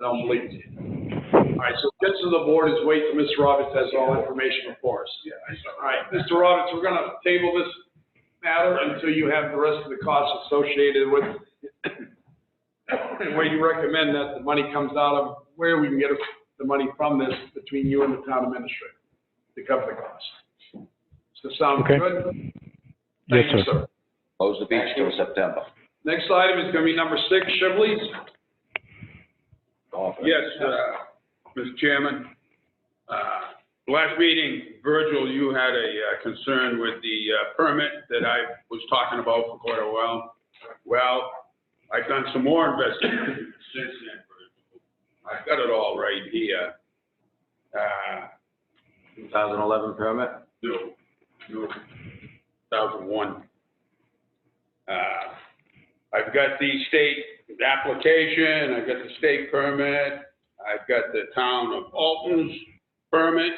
I don't believe it. All right, so get to the board is wait till Mr. Roberts has all information before us. All right, Mr. Roberts, we're gonna table this matter until you have the rest of the costs associated with and where you recommend that the money comes out of, where we can get the money from this between you and the town administrator to cover the cost. Does that sound Okay. good? Yes, Thank you, sir. Close the beach till September. Next item is gonna be number six, Shibley's. Golf. Yes, uh, Mr. Chairman. Uh, Last meeting, Virgil, you had a uh, concern with the uh, permit that I was talking about for quite a while. Well, I've done some more investigation since then, Virgil. I've got it all right here. Uh, 2011 permit? No, no, 2001. Uh, I've got the state application, I've got the state permit, I've got the town of Alton's permit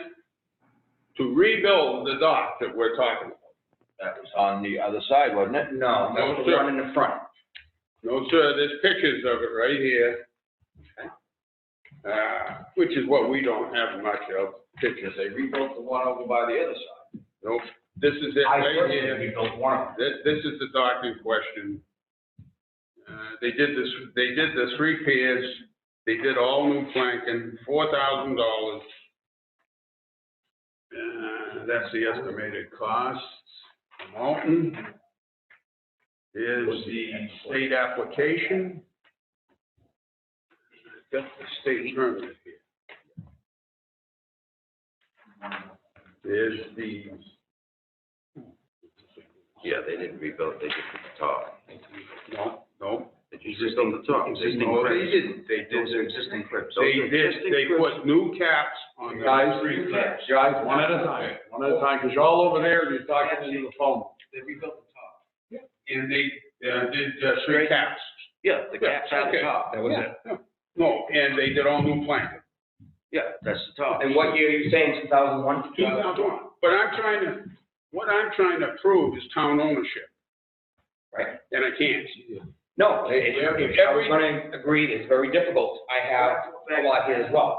to rebuild the dock that we're talking about. That was on the other side, wasn't it? No, that was the one in the front. No, sir, there's pictures of it right here. Uh, Which is what we don't have much of, pictures. They rebuilt the one over by the other side. Nope, this is it I right here. personally built one of them. This, this is the dock in question. Uh, They did this, they did the three piers, they did all new planking, four thousand dollars. Uh, That's the estimated cost. Mountain. Here's the state application. Got the state permit here. There's the Yeah, they didn't rebuild, they did the top. No, no. Existing, the top, existing No, they cribs. didn't. They did. Those are existing cribs. Those They are did, existing they cribs. put new caps on the. Guys, street lights. guys, one at a time, one at a time, because you're all over there and you're talking into the phone. They rebuilt the top. And they, uh, did uh, three caps. Yeah, the gaps out the okay. top, that was it. No, and they did all new planting. Yeah, that's the top. And what year are you saying, two thousand one? Two thousand one. But I'm trying to, what I'm trying to prove is town ownership, Right. and I can't. No, it- it's, it's, I was gonna agree, it's very difficult. I have a lot here as well.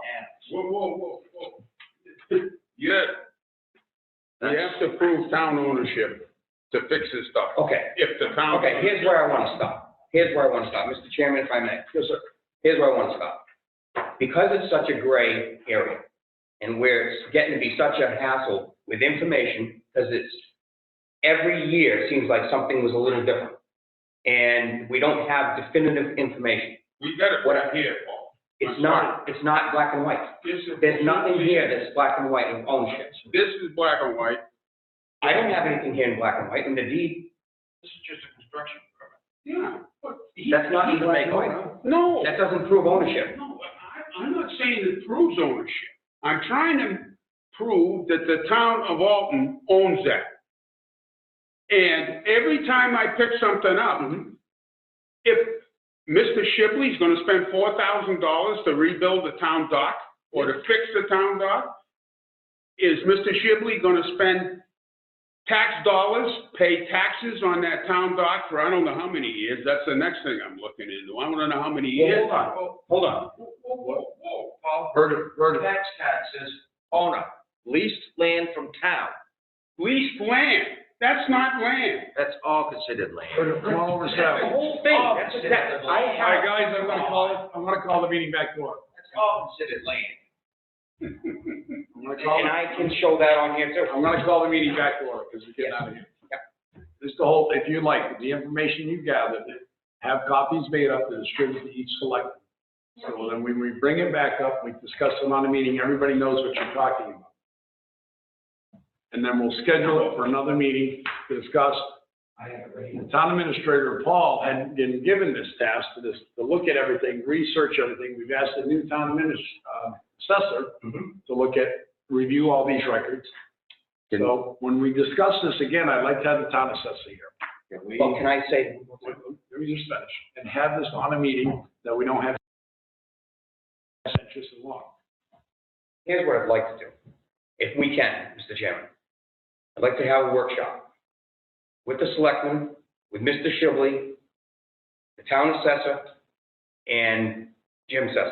Whoa, whoa, whoa, whoa. Yeah. You have to prove town ownership to fix this stuff. Okay. If the town. Okay, here's where I want to stop. Here's where I want to stop, Mr. Chairman, if I may. Yes, sir. Here's where I want to stop. Because it's such a gray area, and where it's getting to be such a hassle with information, because it's, every year, it seems like something was a little different. And we don't have definitive information. We got it right here, Paul. It's not, it's not black and white. This is- There's nothing here that's black and white of ownership. This is black and white. I don't have anything here in black and white, and the deed, This is just a construction permit. Yeah. that's not even black and white. No, That doesn't prove ownership. no, I, I'm not saying it proves ownership. I'm trying to prove that the town of Alton owns that. And every time I pick something up, if Mr. Shipley's gonna spend four thousand dollars to rebuild the town dock or to fix the town dock, is Mr. Shipley gonna spend tax dollars, pay taxes on that town dock for I don't know how many years? That's the next thing I'm looking into. I wanna know how many Well, years. hold on, hold on. Whoa, whoa, whoa, Paul. Heard it, heard it. Tax taxes, owner, leased land from town. Leased land, that's not land. That's all considered land. Come on over, The Sal. whole thing, Oh, that's, that, I All right, have. guys, I'm gonna call, I'm gonna call the meeting back to order. That's all considered land. I'm gonna call, And I Hmm. can show that on here too. I'm gonna call the meeting back to order, because we're getting out of here. Just the whole, if you like, the information you gathered, have copies made up and distributed to each select. So then when we bring it back up, we discuss it on the meeting, everybody knows what you're talking about. And then we'll schedule it for another meeting to discuss I have it right here. The town administrator, Paul, had been given this task to this, to look at everything, research everything. We've asked the new town adminis, uh, assessor to look at, review all these records. Can- So when we discuss this again, I'd like to have the town assessor here. Can we? Well, can I say, Wait, Let me just finish. And have this on a meeting that we don't have just as long. here's what I'd like to do, if we can, Mr. Chairman. I'd like to have a workshop with the selectmen, with Mr. Shibley, the town assessor, and Jim Sessa.